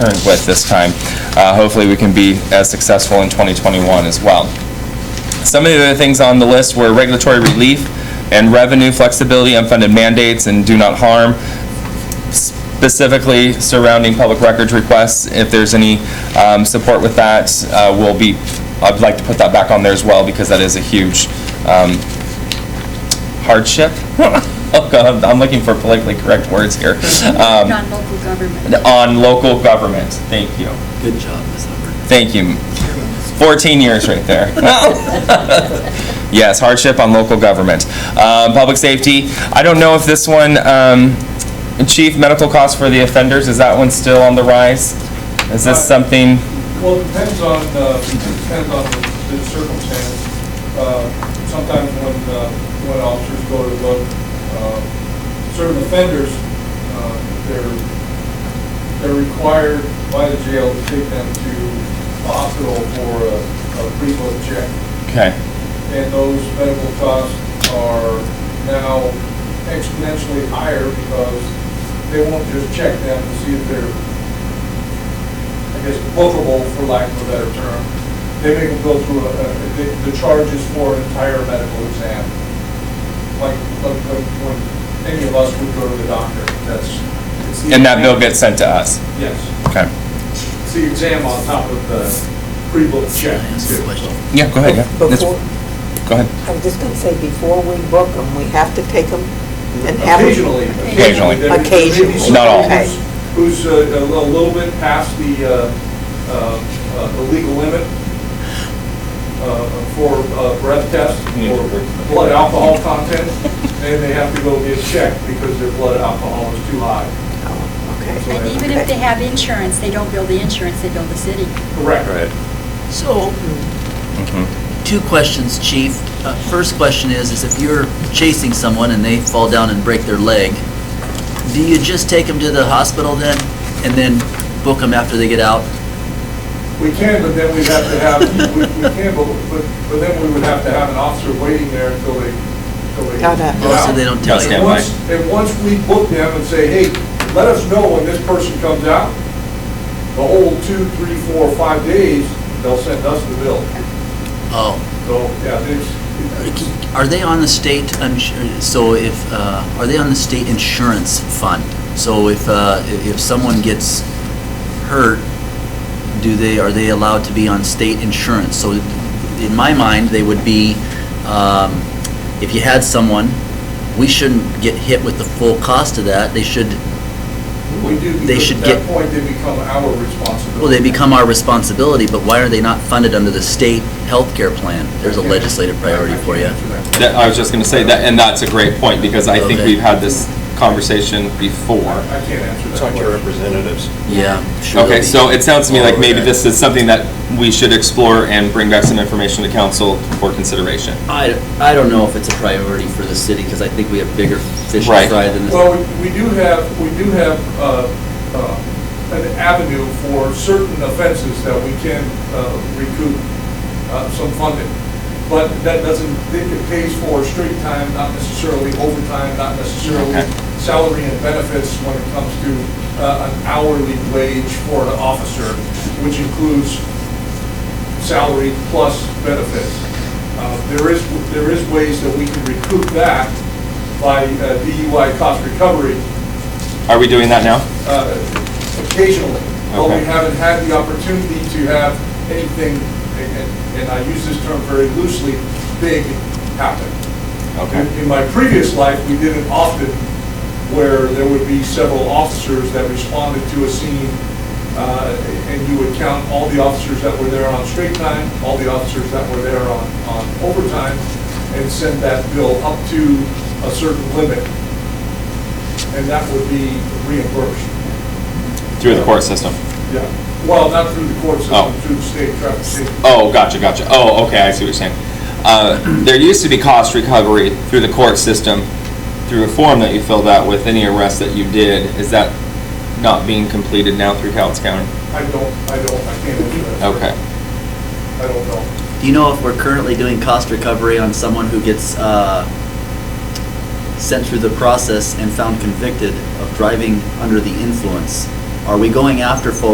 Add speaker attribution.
Speaker 1: with this time. Uh, Hopefully, we can be as successful in 2021 as well. Some of the other things on the list were regulatory relief and revenue flexibility, unfunded mandates, and do not harm, specifically surrounding public records requests. If there's any um, support with that, uh, we'll be, I'd like to put that back on there as well, because that is a huge um, hardship. Oh, God, I'm looking for politically correct words here. Um,
Speaker 2: Non-local government.
Speaker 1: on local government. Thank you.
Speaker 3: Good job, Ms. Hubbard.
Speaker 1: Thank you. 14 years right there. Yes, hardship on local government. Uh, Public safety, I don't know if this one, um, chief, medical costs for the offenders, is that one still on the rise? Is this something,
Speaker 4: Well, it depends on, uh, it depends on the the circumstance. Uh, Sometimes when, uh, when officers go to look, uh, certain offenders, uh, they're, they're required by the jail to take them to a hospital for a a pre-book check.
Speaker 1: okay,
Speaker 4: And those medical costs are now exponentially higher because they won't just check them to see if they're I guess, bookable, for lack of a better term. They make them go through, a- a- the- the charges for an entire medical exam, like, like like when any of us would go to the doctor, that's. it's the
Speaker 1: and that
Speaker 4: exam-
Speaker 1: bill gets sent to us?
Speaker 4: Yes,
Speaker 1: Okay.
Speaker 4: it's the exam on top of the pre-book check, too.
Speaker 1: Yeah, go ahead, yeah. That's-
Speaker 5: Before,
Speaker 1: Go ahead.
Speaker 5: I was just going to say, before we book them, we have to take them and have them.
Speaker 4: Occasionally.
Speaker 1: Occasionally.
Speaker 4: There- there may be
Speaker 5: Occasionally.
Speaker 4: somebody
Speaker 1: Not all.
Speaker 5: Okay.
Speaker 4: Who's who's, uh, a little- little bit past the, uh, uh, uh, the legal limit uh, for uh, breath test
Speaker 1: Yeah.
Speaker 4: or blood alcohol content, and they have to go get checked because their blood alcohol is too high.
Speaker 5: Oh, okay.
Speaker 2: And even if they have insurance, they don't bill the insurance, they bill the city.
Speaker 4: Correct.
Speaker 3: So,
Speaker 1: Mhm.
Speaker 3: two questions, chief. Uh, First question is, is if you're chasing someone and they fall down and break their leg, do you just take them to the hospital then, and then book them after they get out?
Speaker 4: We can, but then we'd have to have, we we can, but, but but then we would have to have an officer waiting there until they, until they.
Speaker 5: Got it.
Speaker 4: get
Speaker 3: Oh, So
Speaker 4: out.
Speaker 3: they don't tell
Speaker 1: Yeah,
Speaker 4: And
Speaker 3: you?
Speaker 1: Mike.
Speaker 4: once, and once we book them and say, hey, let us know when this person comes out, the whole two, three, four, five days, they'll send us the bill.
Speaker 3: Oh,
Speaker 4: So, yeah, there's,
Speaker 3: are they on the state, I'm su- so if, uh, are they on the state insurance fund? So if, uh, i- if someone gets hurt, do they, are they allowed to be on state insurance? So in my mind, they would be, um, if you had someone, we shouldn't get hit with the full cost of that. They should,
Speaker 4: we do,
Speaker 3: They
Speaker 4: because
Speaker 3: should
Speaker 4: at that
Speaker 3: get-
Speaker 4: point, they become our responsibility.
Speaker 3: well, they become our responsibility, but why are they not funded under the state healthcare plan? There's a legislative priority for you.
Speaker 1: That- uh, I was just going to say that, and that's a great point, because I think
Speaker 3: Okay.
Speaker 1: we've had this conversation before.
Speaker 4: I can't answer that.
Speaker 6: Talk to your
Speaker 4: question.
Speaker 6: representatives.
Speaker 3: Yeah. sure they'll
Speaker 1: Okay,
Speaker 3: be-
Speaker 1: so it sounds to me like maybe
Speaker 3: Okay.
Speaker 1: this is something that we should explore and bring back some information to council for consideration.
Speaker 3: I, I don't know if it's a priority for the city, because I think we have bigger fish
Speaker 1: Right.
Speaker 3: to fry than this.
Speaker 4: Well, we- we do have, we do have uh, uh, an avenue for certain offenses that we can uh, recoup uh, some funding. But that doesn't, it pays for street time, not necessarily overtime, not necessarily
Speaker 1: Okay.
Speaker 4: salary and benefits when it comes to uh, an hourly wage for an officer, which includes salary plus benefits. Uh, There is, there is ways that we can recoup that by uh, DUI cost recovery
Speaker 1: Are we doing that now?
Speaker 4: uh, occasionally, but we
Speaker 1: Okay.
Speaker 4: haven't had the opportunity to have anything, and- and I use this term very loosely, big happen.
Speaker 1: Okay.
Speaker 4: In my previous life, we did it often where there would be several officers that responded to a scene, uh, and you would count all the officers that were there on straight time, all the officers that were there on on overtime, and send that bill up to a certain limit, and that would be reimbursed.
Speaker 1: Through the court system?
Speaker 4: Yeah, well, not through the court
Speaker 1: Oh.
Speaker 4: system, through the state traffic safety.
Speaker 1: Oh, gotcha, gotcha. Oh, okay, I see what you're saying. Uh, There used to be cost recovery through the court system, through a form that you filled out with any arrest that you did. Is that not being completed now through Cowles County?
Speaker 4: I don't, I don't, I can't answer that.
Speaker 1: Okay.
Speaker 4: I don't know.
Speaker 3: Do you know if we're currently doing cost recovery on someone who gets uh, sent through the process and found convicted of driving under the influence? Are we going after folks